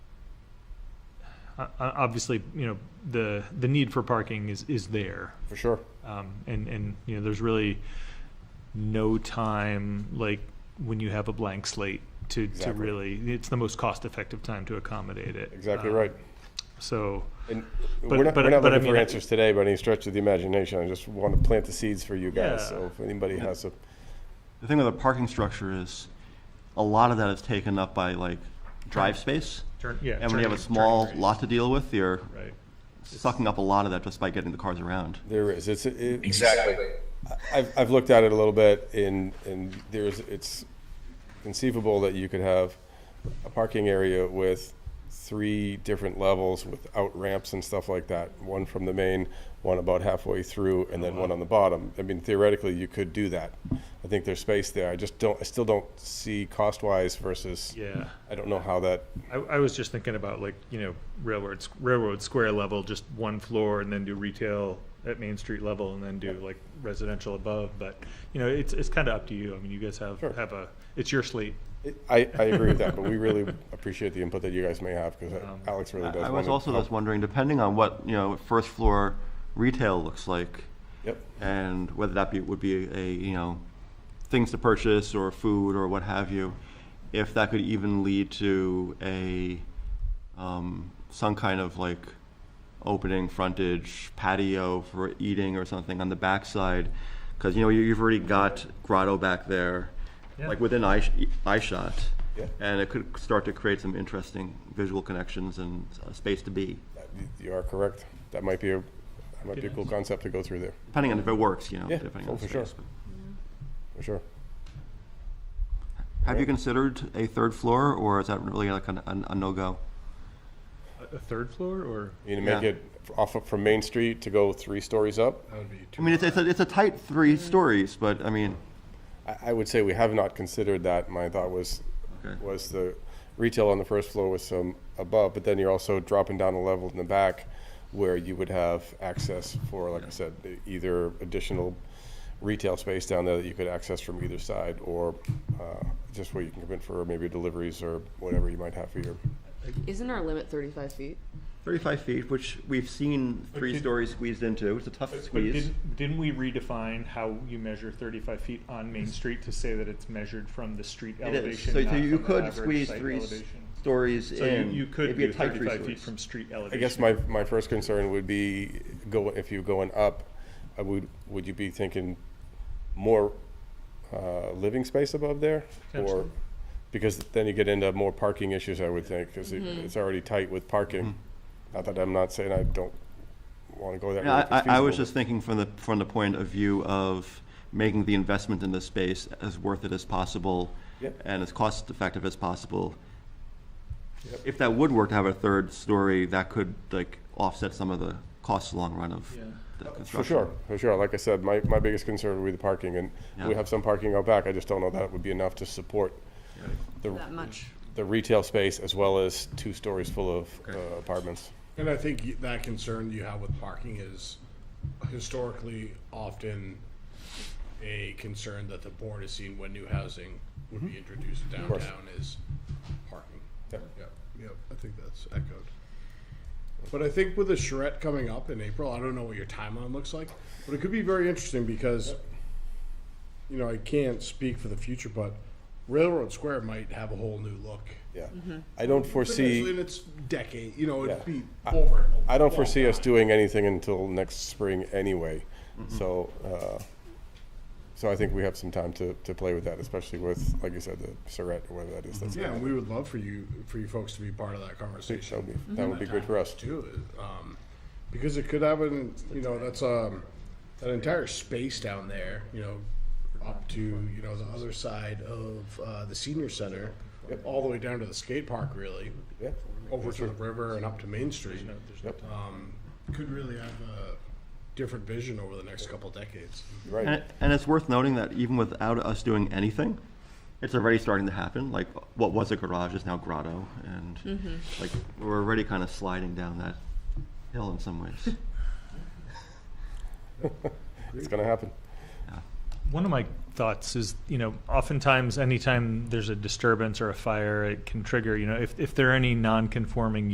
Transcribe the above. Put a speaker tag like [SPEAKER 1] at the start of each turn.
[SPEAKER 1] uh, uh, obviously, you know, the, the need for parking is, is there.
[SPEAKER 2] for sure.
[SPEAKER 1] Um, and, and, you know, there's really no time, like, when you have a blank slate to, to
[SPEAKER 2] Exactly.
[SPEAKER 1] really, it's the most cost-effective time to accommodate it.
[SPEAKER 2] Exactly
[SPEAKER 1] Um,
[SPEAKER 2] right.
[SPEAKER 1] So,
[SPEAKER 2] And
[SPEAKER 1] but-
[SPEAKER 2] we're not,
[SPEAKER 1] but-
[SPEAKER 2] we're not
[SPEAKER 1] but I
[SPEAKER 2] looking for
[SPEAKER 1] mean, I-
[SPEAKER 2] answers today by any stretch of the imagination. I just want to plant the seeds for you guys.
[SPEAKER 1] Yeah.
[SPEAKER 2] So if anybody has a,
[SPEAKER 3] The thing with a parking structure is, a lot of that is taken up by like drive space.
[SPEAKER 1] Turn- yeah,
[SPEAKER 3] And when you have a
[SPEAKER 1] turning-
[SPEAKER 3] small
[SPEAKER 1] turning
[SPEAKER 3] lot to deal with, you're
[SPEAKER 1] right,
[SPEAKER 3] sucking up a lot of that just by getting the cars around.
[SPEAKER 2] there is, it's, it-
[SPEAKER 4] Exactly.
[SPEAKER 2] I've, I've looked at it a little bit and, and there's, it's conceivable that you could have a parking area with three different levels without ramps and stuff like that. One from the main, one about halfway through, and
[SPEAKER 3] Oh,
[SPEAKER 2] then one on the bottom. I mean, theoretically, you could do that. I think there's space there. I just don't, I still don't see cost-wise versus,
[SPEAKER 1] yeah.
[SPEAKER 2] I don't know how that,
[SPEAKER 1] I, I was just thinking about like, you know, railroad, railroad square level, just one floor and then do retail at Main Street level and then do like residential above. But, you know, it's, it's kind of up to you. I mean, you guys have,
[SPEAKER 2] Sure.
[SPEAKER 1] have a, it's your slate.
[SPEAKER 2] I, I agree with that, but we really appreciate the input that you guys may have because Alex really
[SPEAKER 3] Um, I
[SPEAKER 2] does
[SPEAKER 3] I
[SPEAKER 2] want to.
[SPEAKER 3] was also just wondering, depending on what, you know, first floor retail looks like,
[SPEAKER 2] Yep,
[SPEAKER 3] and whether that be, would be a, you know, things to purchase or food or what have you, if that could even lead to a, um, some kind of like opening frontage patio for eating or something on the backside, because, you know, you- you've already got grotto back there, like
[SPEAKER 1] Yeah.
[SPEAKER 3] within eye, sh- eye shot.
[SPEAKER 2] Yeah.
[SPEAKER 3] And it could start to create some interesting visual connections and uh, space to be,
[SPEAKER 2] you are correct. That might be a, that might be a cool concept to go through there.
[SPEAKER 3] depending on if it works, you know,
[SPEAKER 2] Yeah,
[SPEAKER 3] depending
[SPEAKER 2] oh,
[SPEAKER 3] on the
[SPEAKER 2] for sure.
[SPEAKER 3] space.
[SPEAKER 2] For sure.
[SPEAKER 3] Have you considered a third floor, or is that really like an, an, a no-go?
[SPEAKER 1] A- A third floor or?
[SPEAKER 2] You need to make
[SPEAKER 3] Yeah.
[SPEAKER 2] it f- off of, from Main Street to go three stories up.
[SPEAKER 3] I mean, it's, it's, a, it's a tight three stories, but I mean,
[SPEAKER 2] I, I would say we have not considered that. My thought was,
[SPEAKER 3] Okay.
[SPEAKER 2] was the retail on the first floor with some above, but then you're also dropping down a level in the back where you would have access for, like I said, e- either additional retail space down there that you could access from either side or uh, just where you can come in for maybe deliveries or whatever you might have for your
[SPEAKER 4] Isn't our limit 35 feet?
[SPEAKER 3] 35 feet, which we've seen three
[SPEAKER 1] did-
[SPEAKER 3] stories squeezed into. It's a tough
[SPEAKER 1] But
[SPEAKER 3] squeeze.
[SPEAKER 1] didn't, didn't we redefine how you measure thirty-five feet on Main Street to say that it's measured from the street
[SPEAKER 3] It is.
[SPEAKER 1] elevation?
[SPEAKER 3] So
[SPEAKER 1] not
[SPEAKER 3] you- you
[SPEAKER 1] from the
[SPEAKER 3] could
[SPEAKER 1] average
[SPEAKER 3] squeeze
[SPEAKER 1] site
[SPEAKER 3] three s-
[SPEAKER 1] elevation?
[SPEAKER 3] stories
[SPEAKER 1] So you,
[SPEAKER 3] in.
[SPEAKER 1] you could
[SPEAKER 3] it'd be a
[SPEAKER 1] do
[SPEAKER 3] tight three
[SPEAKER 1] thirty-five feet
[SPEAKER 3] stories.
[SPEAKER 1] from street
[SPEAKER 2] I
[SPEAKER 1] elevation.
[SPEAKER 2] guess my, my first concern would be go, if you going up, I would, would you be thinking more, uh, living space above there? Or,
[SPEAKER 1] Potentially.
[SPEAKER 2] because then you get into more parking issues, I would think, because it, it's already tight with parking. Not that I'm not saying I don't wanna go that
[SPEAKER 3] Yeah,
[SPEAKER 2] route. if
[SPEAKER 3] I,
[SPEAKER 2] it's
[SPEAKER 3] I- I was
[SPEAKER 2] feasible,
[SPEAKER 3] just thinking from the, from the point of view of making the investment in the space as worth it as possible
[SPEAKER 2] Yep.
[SPEAKER 3] and as cost-effective as possible.
[SPEAKER 2] Yep.
[SPEAKER 3] If that would work to have a third story, that could like offset some of the costs long run of
[SPEAKER 1] Yeah.
[SPEAKER 3] the
[SPEAKER 2] but-
[SPEAKER 3] construction.
[SPEAKER 2] For sure, for sure. Like I said, my, my biggest concern would be the parking, and we
[SPEAKER 3] Yeah.
[SPEAKER 2] have some parking out back. I just don't know that would be enough to support the,
[SPEAKER 4] That much.
[SPEAKER 2] the retail space as well as two stories full of uh, apartments.
[SPEAKER 5] And I think y- that concern you have with parking is historically often a concern that the board has seen when new housing would be introduced
[SPEAKER 2] course.
[SPEAKER 5] downtown is parking.
[SPEAKER 2] Yep.
[SPEAKER 5] Mm-hmm. Yep, yep, I think that's echoed. But I think with the charrette coming up in April, I don't know what your timeline looks like, but it could be very interesting because, you know, I can't speak for the future, but Railroad Square might have a whole new look.
[SPEAKER 2] Yeah. I don't
[SPEAKER 5] Potentially
[SPEAKER 2] foresee,
[SPEAKER 5] in its decade, you know, it'd
[SPEAKER 2] Yeah.
[SPEAKER 5] be over.
[SPEAKER 2] I don't foresee us doing anything until next spring anyway. So, uh, so I think we have some time to, to play with that, especially with, like you said, the charrette or whatever that is. that's-
[SPEAKER 5] Yeah, and we would love for you, for you folks to be part of that
[SPEAKER 2] That would
[SPEAKER 5] conversation.
[SPEAKER 2] be, that would be good for us.
[SPEAKER 5] Too, um, because it could have an, you know, that's, um, that entire space down there, you know, up to, you know, the other side of, uh, the senior center, all the way down to the skate park really,
[SPEAKER 2] Yeah.
[SPEAKER 5] over to the river and up to Main Street.
[SPEAKER 2] Yep.
[SPEAKER 5] Um, could really have a different vision over the next couple decades.
[SPEAKER 2] You're Right.
[SPEAKER 3] And, and it's worth noting that even without us doing anything, it's already starting to happen. Like what was a garage is now grotto, and like we're already kind of sliding down that hill in some ways.
[SPEAKER 2] It's going to happen.
[SPEAKER 1] One of my thoughts is, you know, oftentimes anytime there's a disturbance or a fire, it can trigger, you know, if, if there are any non-conforming